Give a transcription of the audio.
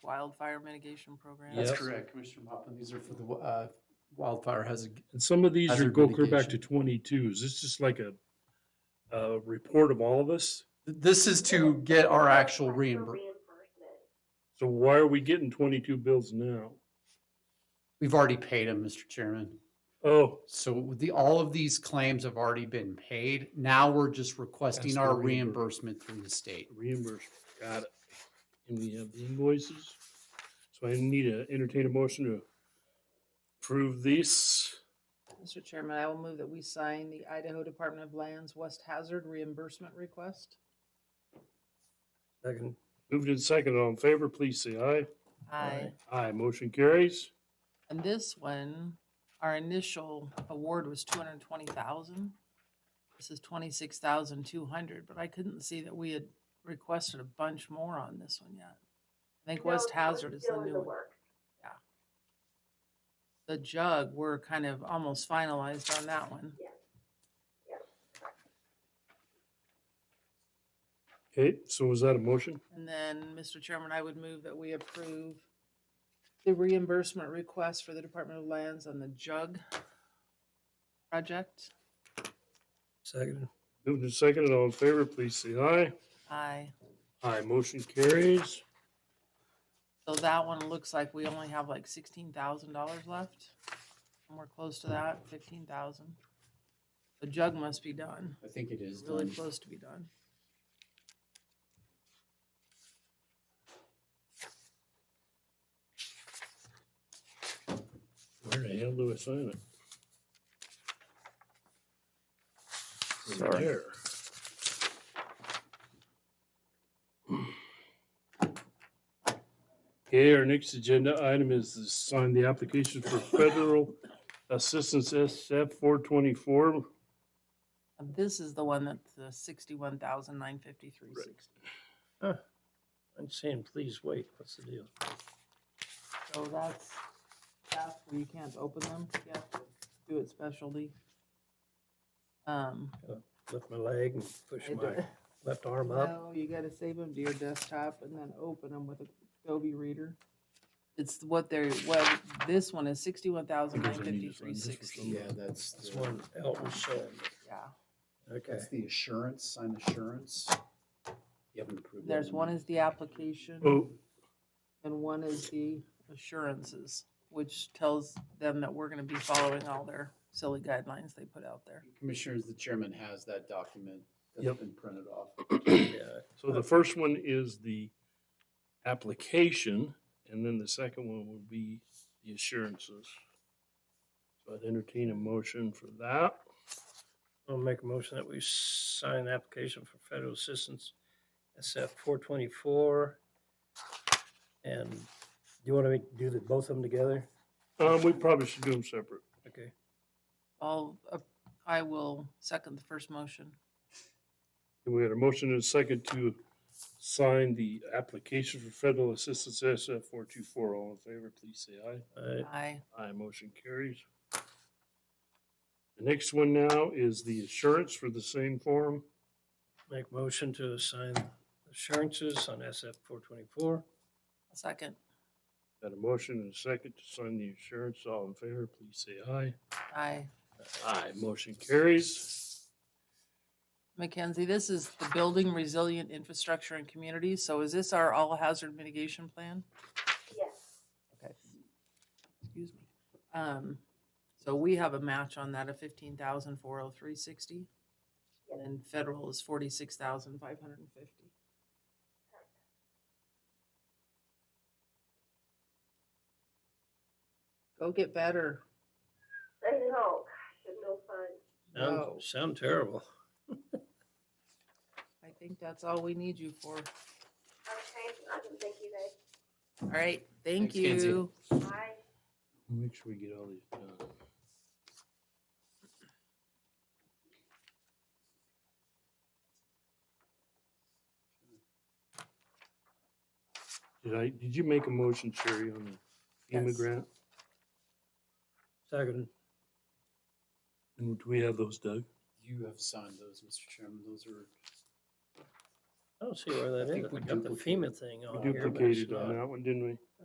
wildfire mitigation program. That's Yes. correct, Commissioner Mopkin. These are for the uh, wildfire hazard. And some of these are Hazard go clear back to mitigation. twenty-two. Is this just like a, a report of all of us? This is to get our actual reimbursement. So why are we getting twenty-two bills now? We've already paid them, Mr. Chairman. Oh, So the, all of these claims have already been paid. Now we're just Ask requesting for our reimbursement. reimbursement through the state. reimbursement, got it. And we have the invoices. So I need to entertain a motion to approve these. Mr. Chairman, I will move that we sign the Idaho Department of Lands West Hazard reimbursement request. Second. Moved in second. All in favor, please say aye. Aye. Aye, motion carries. And this one, our initial award was two hundred and twenty thousand. This is twenty-six thousand two hundred, but I couldn't see that we had requested a bunch more on this one yet. I think West Hazard is the new one. The jug, we're kind of almost finalized on that one. Okay, so was that a motion? And then, Mr. Chairman, I would move that we approve the reimbursement request for the Department of Lands on the jug project. Second. Moved in second. All in favor, please say aye. Aye. Aye, motion carries. So that one looks like we only have like sixteen thousand dollars left. And we're close to that, fifteen thousand. The jug must be done, I think it is really done. close to be done. Where the hell do I sign it? Over Sorry. there. Okay, our next agenda item is to sign the application for federal assistance SF four twenty-four. And this is the one that's the sixty-one thousand nine fifty-three sixty. I'm saying, please wait, what's the deal? So that's, that's where you can't open them, you have to do it specialty. Um. Lift my leg and push I my don't- left arm up. No, you gotta save them to your desktop and then open them with a Adobe Reader. It's what they're, well, this one is sixty-one thousand nine Because I need to fifty-three sign this or sixty, something. Yeah, that's, This the- one Elton showing. yeah. Okay, that's the assurance, sign assurance. You haven't approved. that There's one is the application Oh, and one is the assurances, which tells them that we're gonna be following all their silly guidelines they put out there. Commissioners, the chairman has that document that's Yep. been printed off. yeah, so the first one is the application, and then the second one would be the assurances. So I'd entertain a motion for that. I'll make a motion that we sign the application for federal assistance, SF four twenty-four. And do you want to do the, both of them together? Um, we probably should do them separate. Okay, I'll, uh, I will second the first motion. And we had a motion and a second to sign the application for federal assistance SF four two four. All in favor, please say aye. I, Aye, Aye, motion carries. The next one now is the assurance for the same form. Make motion to assign assurances on SF four twenty-four. second, Got a motion and a second to sign the assurance. All in favor, please say aye. aye. Aye, motion carries. Mackenzie, this is the Building Resilient Infrastructure and Communities. So is this our all hazard mitigation plan? Yes. Okay. Excuse me. Um, so we have a match on that of fifteen thousand four oh three sixty. And federal is forty-six thousand five hundred and fifty. Go get better. I know, gosh, it's no fun. No. Sound, sound terrible. I think that's all we need you for. Okay, awesome, thank you guys. All right, thank Thanks, Kenzie. you. Bye. Make sure we get all these done. Did I, did you make a motion, Sherry, on the FEMA Yes. grant? Second, And do we have those, Doug? You have signed those, Mr. Chairman. Those are I don't see where that I is. think I we got the duplicated- FEMA thing We on here. but it's duplicated uh, not. on that one, didn't we?